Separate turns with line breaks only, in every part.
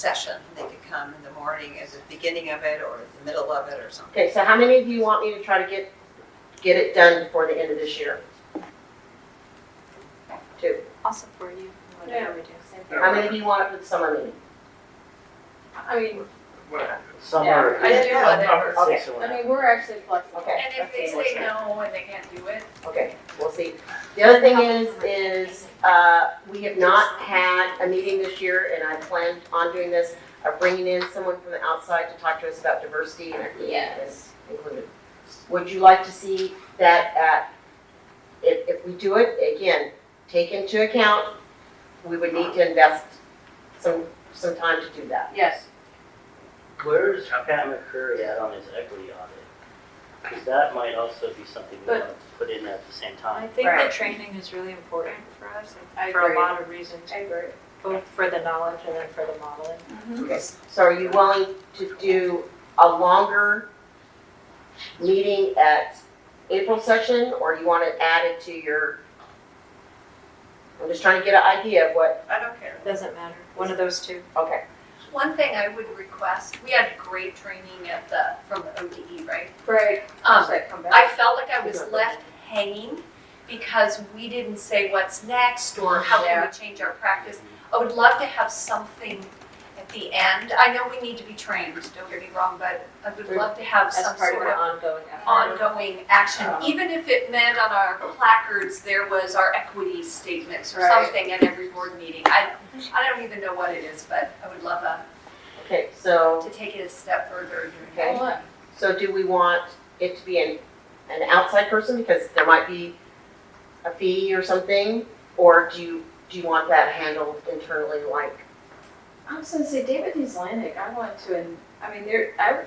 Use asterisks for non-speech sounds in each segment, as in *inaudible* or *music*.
session. They could come in the morning at the beginning of it or the middle of it or something.
Okay, so how many of you want me to try to get, get it done before the end of this year? Two.
I'll support you, in whatever we do.
How many of you want it for the summer meeting?
I mean,
What?
Summer.
I do
Yeah.
whatever.
Okay.
I mean, we're actually flexible.
Okay.
And if they say no and they can't do it,
Okay, we'll see. The other thing is, is, uh, we have not had a meeting this year, and I planned on doing this, of bringing in someone from the outside to talk to us about diversity and equity is included. Would you like to see that at, if, if we do it, again, take into account, we would need to invest some, some time to do that.
yes.
Where's Pat McCurry at on his equity audit? Because that might also be something we
But-
want to put in at the same
I
time.
think
Right.
the training is really important for us,
I
and for
agree.
a lot of reasons,
I agree.
both for the knowledge and then for the modeling.
Okay, so are you willing to do a longer meeting at April session, or you want it added to your? I'm just trying to get an idea of what,
I don't care.
Doesn't matter, one of those two.
okay,
One thing I would request, we had great training at the, from the ODE, right?
Right.
Um,
Should I come back?
I felt like I was left hanging because we didn't say what's next or how can we change our practice. I would love to have something at the end. I know we need to be trained, don't get me wrong, but I would love to have
As
some
part of
sort
the
of
ongoing effort.
ongoing action,
Um,
even if it meant on our placards, there was our equity statements or
Right.
something at every board meeting. I, I don't even know what it is, but I would love a
okay, so,
to take it a step further.
Okay.
Well,
so do we want it to be an, an outside person, because there might be a fee or something? Or do you, do you want that handled internally, like,
I was gonna say David Islamic, I want to, and, I mean, there, I,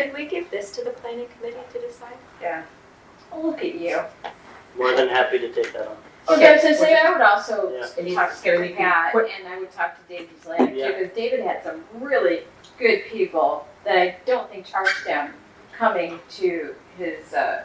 Could we give this to the planning committee to decide?
I'll look at you.
More than happy to take that on.
Well,
Okay.
that's to say, I would also
Yeah.
And he's
talk
gonna
to
be
Pat,
quick.
and I would talk to David Islamic
Yeah.
too, because David had some really good people that I don't think charged him coming to his, uh,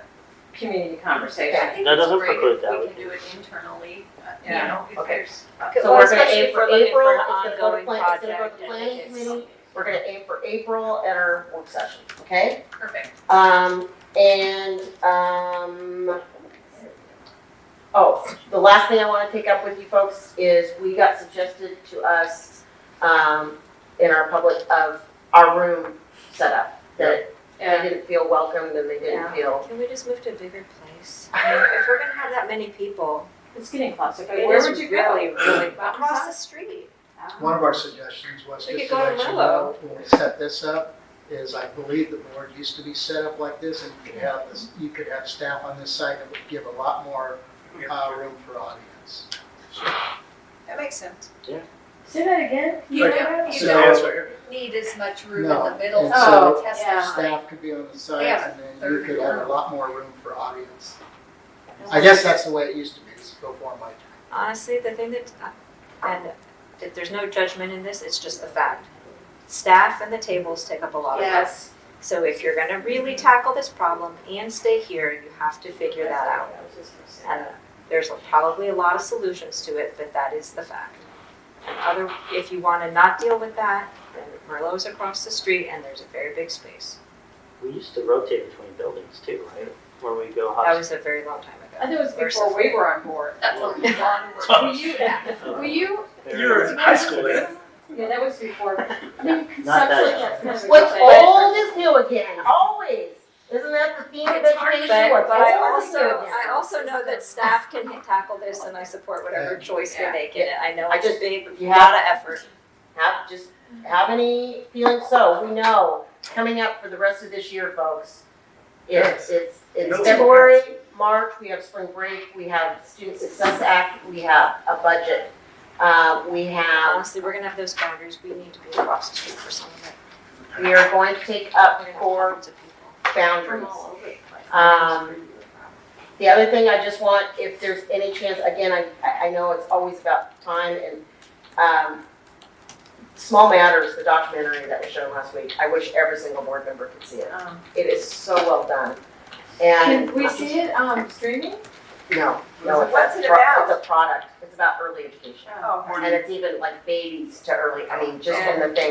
community conversation.
I think
That
it's
doesn't
great if
preclude that.
We can do it internally, uh, you
Yeah.
know, if
Okay.
there's.
So we're gonna
Especially
aim
if
for
we're looking
April,
an
it's gonna go to
ongoing
plan, it's gonna go
project
to
and
planning
it's-
committee, we're gonna aim for April at our work session, okay?
Perfect.
Um, and, um, oh, the last thing I wanna take up with you folks is we got suggested to us, um, in our public of our room setup, that they
Yeah.
didn't feel welcomed and they didn't
Yeah.
feel.
Can we just move to a bigger place? I mean, If we're gonna have that many people,
It's getting claustrophobic.
it
Where
is
would you go?
really, really across
Mountain
the street.
Top?
One of our suggestions was
We
just
could
to
go to
let you know,
Merlot.
when we set this up, is I believe the board used to be set up like this, and you could have this, you could have staff on this side that would give a lot more, uh, room for audience.
That makes sense.
Say that again?
You
Okay.
don't, you
So-
don't need as much room in
No.
the middle
And
to
so-
test
Yeah.
Uh,
something.
Staff could be on the sides,
Yeah.
and then you could have a lot more room for audience. I
Um,
guess that's the way it used to be, it's before my time.
Honestly, the thing that, and that there's no judgment in this, it's just the fact. Staff and the tables take up a lot of room.
Yes.
So if you're gonna really tackle this problem and stay here, you have to figure that out. And there's probably a lot of solutions to it, but that is the fact. Other, if you wanna not deal with that, then Merlot's across the street and there's a very big space.
We used to rotate between buildings too, right? Where we go
That
hop.
was a very long time
I
ago.
think it was before we were on
*laughs*
board.
That's a lot of work.
Were you, were you,
There-
high school eh? then. yeah, that
*laughs*
was before. I mean, conceptually,
Not that.
that's kind of a
What's
good thing.
old is new again, always. Isn't that the theme of
It's hard to
education?
say,
What's
But I
old is
also,
new again.
I also know that staff can tackle this and I support whatever choice we make in it. I know
I
it's a
just-
big,
you
lot of effort.
Have, just have any feelings, so we know, coming up for the rest of this year, folks. It's, it's, it's
No.
February, March, we have spring break, we have Student Success Act, we have a budget. Uh, we have,
Honestly, we're gonna have those boundaries. We need to be across the street for some of it.
we are going to take up
We're gonna have
core
hundreds of people.
boundaries. Um, The other thing I just want, if there's any chance, again, I, I I know it's always about time and, um, Small Matters, the documentary that was shown last week, I wish every single board member could see it.
Um,
It is so well done. And.
Can we see it, um, streaming?
No, no, it's. a
What's it
pro-
about?
It's a product, it's about early education.
oh.
And it's even like babies to early, I mean, just from the thing.